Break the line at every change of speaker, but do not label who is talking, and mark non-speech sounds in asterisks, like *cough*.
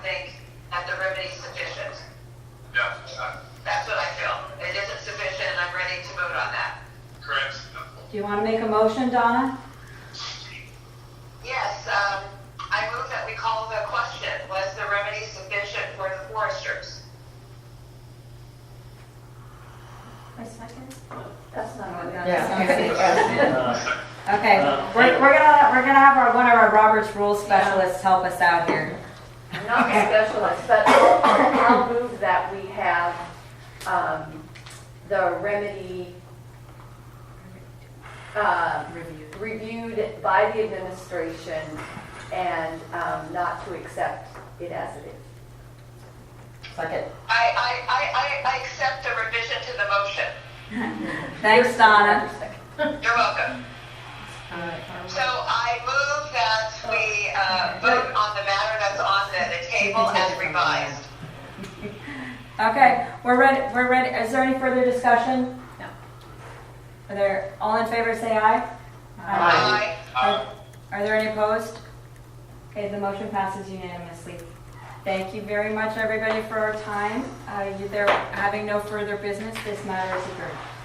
Want to make a motion, Donna?
Yes, um, I move that we call the question, was the remedy sufficient for the foresters?
That's not what we got.
Yeah.
*laughs* Okay, we're, we're gonna, we're gonna have our, one of our Roberts Rules specialists help us out here.
I'm not a specialist, but I'll I'll move that we have um, the remedy uh, reviewed by the administration and um, not to accept it as it is.
Second.
I, I, I, I, I accept the revision to the motion.
Thanks, Donna.
You're welcome. So I move that we, uh, vote on the matter that's on the, the table as revised.
Okay, we're ready, we're ready, is there any further discussion?
No.
Are there, all in favor, say aye.
Aye.
Are are there any opposed? Okay, the motion passes unanimously. Thank you very much, everybody, for our time. Uh, you- There, having no further business, this matter is adjourned.